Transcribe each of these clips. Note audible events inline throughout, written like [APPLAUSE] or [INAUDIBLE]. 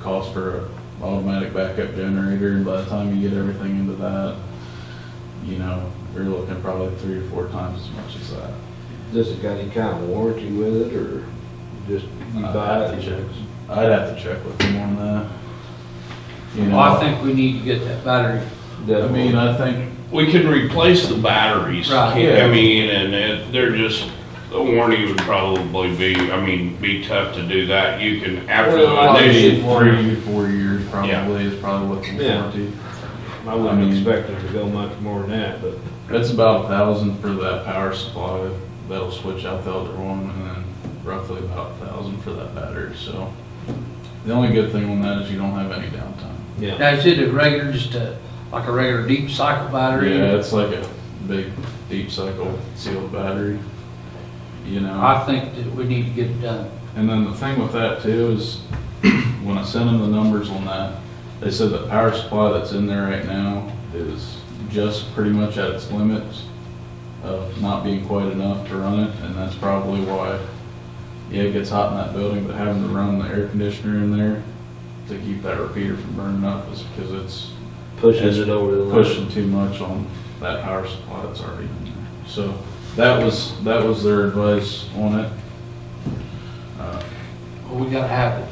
cost for a automatic backup generator, and by the time you get everything into that, you know, you're looking probably three or four times as much as that. Does it got any kind of warranty with it, or just you I'd buy Uh, have to it? check. I'd have to check with them on that. You Well, I know, think we need to get that battery. I Doesn't- mean, I think, We could replace the batteries. Right. Yeah. I mean, and it, they're just, the warranty would probably be, I mean, be tough to do that. You can, after Well, I the maybe should warrant- initial three, four years Yeah. probably is probably what the Yeah. warranty. I I wouldn't mean- expect it to go much more than that, but That's about a thousand for that power supply, that'll switch out the other one, and then roughly about a thousand for that battery, so. The only good thing on that is you don't have any downtime. yeah. Now, is it a regular, just a, like a regular deep cycle battery? Yeah, it's like a big, deep cycle sealed battery, you know? I think that we need to get it done. And then the thing with that too is, [CLEARS THROAT] when I sent them the numbers on that, they said the power supply that's in there right now is just pretty much at its limits of not being quite enough to run it, and that's probably why, yeah, it gets hot in that building, but having to run the air conditioner in there to keep that repeater from burning up is because it's Pushes it over the limit. pushing too much on that power supply that's already in there. So that was, that was their advice on it. Uh, Well, we gotta have it.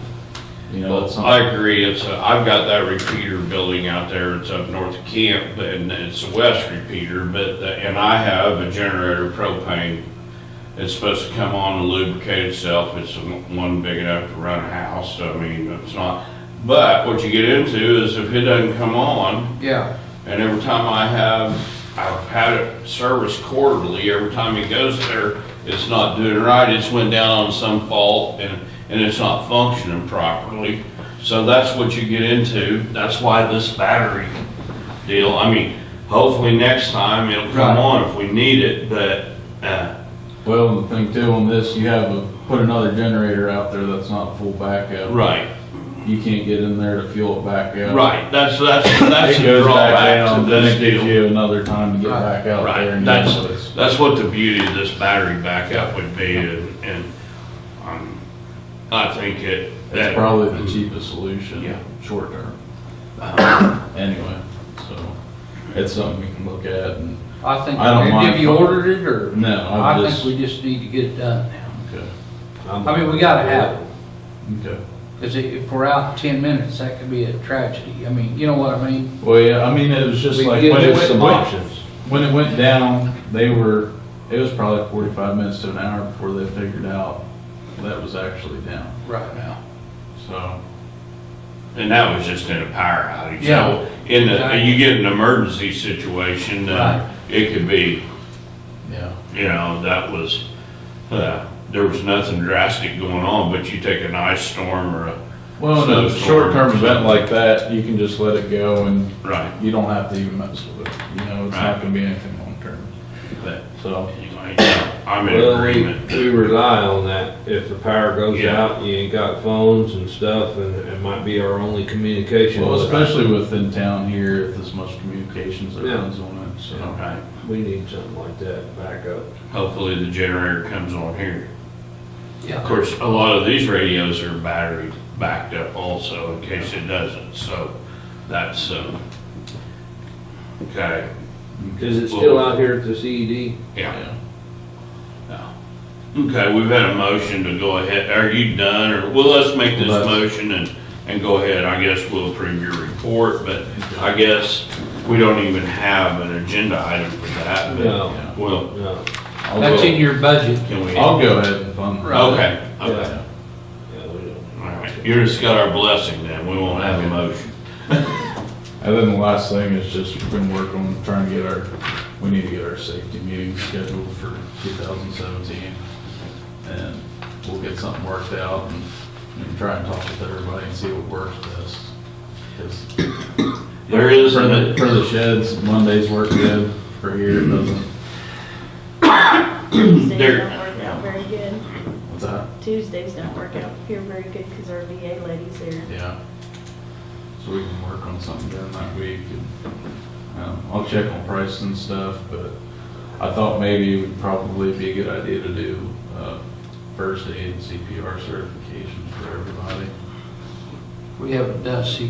You know, that's Well, something. I agree, it's, a- I've got that repeater building out there, it's up north of camp, and it's a west repeater, but, the- and I have a generator propane. It's supposed to come on and lubricate itself, it's one big enough to run a house, I mean, it's not, but what you get into is if it doesn't come on, Yeah, and every time I have, I've had it serviced quarterly, every time it goes there, it's not doing right, it's went down on some fault and, and it's not functioning properly. So that's what you get into, that's why this battery deal, I mean, hopefully next time it'll Right. come on if we need it, but, uh, Well, the thing too on this, you have a, put another generator out there that's not full backup. right, You can't get in there to fuel it back up. right, that's, that's, that's It the goes back drawback down, to then this it gives deal. you another time to get Right. back out there. Right, and that's, get it. that's what the beauty of this battery backup would be, and, and, um, I think it, It's that, probably the cheapest solution. Yeah. Uh-huh. Short term. Anyway, so it's something we can look at and, I think, I don't mind. have you ordered it, or? no, I I just. think we just need to get it done now. Okay, I'm- I mean, we gotta have it, okay. because if we're out ten minutes, that could be a tragedy. I mean, you know what I mean? Well, yeah, I mean, it was just We like. give when it us went some up, options. When it went down, they were, it was probably forty-five minutes to an hour before they figured out that was actually down, Right now. so. and that was just in a power outage. Yeah. So, In the, Exactly. you get an emergency situation, uh, it could be, Yeah. you know, that was, uh, there was nothing drastic going on, but you take an ice storm or a, Well, in a Snowstorm. short-term event like that, you can just let it go and right, you don't have to even mess with it, you know, it's not Right. gonna be anything long-term, but, so. anyway, yeah, I'm in Well, we, agreement. we rely on that. If the power goes Yeah. out, you ain't got phones and stuff, and it might be our only communication. Well, with- especially within town here, if there's much communications that Yeah. runs on it, so. Right, We need something like that back up. hopefully the generator comes on here. Of Yeah, course, a lot of these radios are battery backed up also in case it doesn't, so that's, um, okay, Is it still out here at the E CED? yeah. Okay, we've had a motion to go ahead, are you done, or, well, let's make this Let's- motion and, and go ahead, I guess we'll approve your report, but I guess we don't even have an agenda item for that, but, No, Yeah. well, no. I'll that's go- in your budget. can we? I'll go ahead and fund. Right. Okay, okay, Yeah, yeah, we don't. all right, you just got our blessing then, we won't have a motion. And then the last thing is just, we've been working on trying to get our, we need to get our safety meeting scheduled for 2017. And we'll get something worked out and and try and talk with everybody and see what works best. 'Cause There is For the, a- for the sheds, Mondays work good, for here it doesn't. Tuesdays They're- don't work out very good. What's that? Tuesdays don't work out here very good because our VA lady's there. Yeah. So we can work on something during that week. and, um, I'll check on price and stuff, but I thought maybe it would probably be a good idea to do uh, first aid and CPR certifications for everybody. we haven't done a